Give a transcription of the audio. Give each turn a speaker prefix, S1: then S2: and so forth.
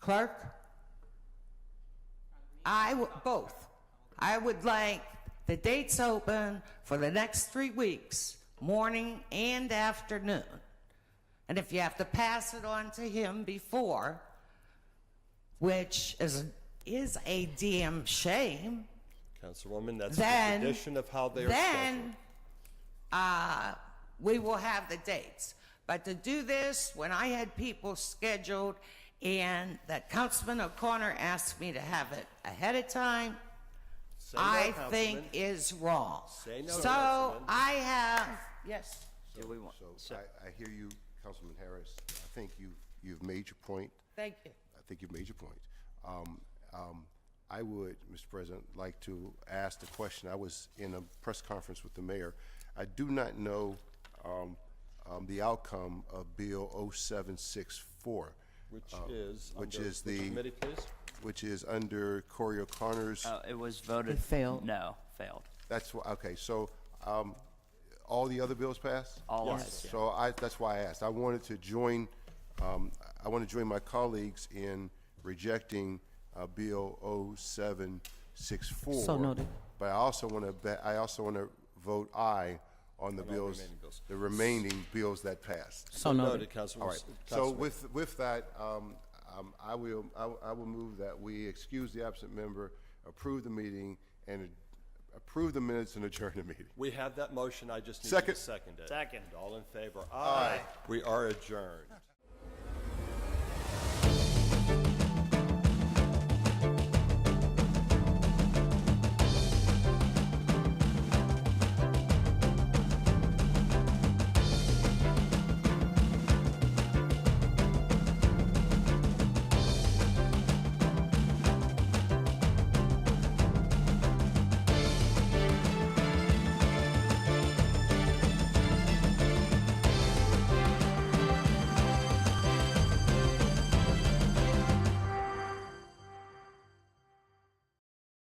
S1: Clerk? I, w- both. I would like the dates open for the next three weeks, morning and afternoon. And if you have to pass it on to him before, which is, is a damn shame,
S2: Councilwoman, that's the
S1: Then-
S2: tradition of how they are scheduled.
S1: then uh, we will have the dates. But to do this, when I had people scheduled and that Councilman O'Connor asked me to have it ahead of time,
S2: Say no,
S1: I think
S2: Councilman.
S1: is wrong.
S2: Say no,
S1: So
S2: Councilman.
S1: I have, yes, do we want?
S3: So I, I hear you, Councilman Harris. I think you've, you've made your point.
S1: Thank you.
S3: I think you've made your point. Um, um, I would, Mr. President, like to ask the question. I was in a press conference with the mayor. I do not know um, um, the outcome of Bill 0764,
S2: Which is,
S3: Oh, which
S2: under
S3: is
S2: which
S3: the-
S2: Committee, please.
S3: which is under Corey O'Connor's.
S4: Uh, it was voted.
S5: It failed.
S4: No, failed.
S3: That's why, okay, so um, all the other bills passed?
S4: All of us.
S3: So I, that's why I asked. I wanted to join, um, I want to join my colleagues in rejecting, uh, Bill 0764.
S5: So noted.
S3: But I also want to bet, I also want to vote aye on the bills, the remaining bills that passed.
S5: So noted.
S2: Noted, Councilwoman.
S3: All right. So with, with that, um, um, I will, I will- I will move that we excuse the absent member, approve the meeting, and approve the minutes and adjourn the meeting.
S2: We have that motion, I just need you to
S3: Second.
S2: second it.
S4: Second.
S2: All in favor? Aye. We are adjourned.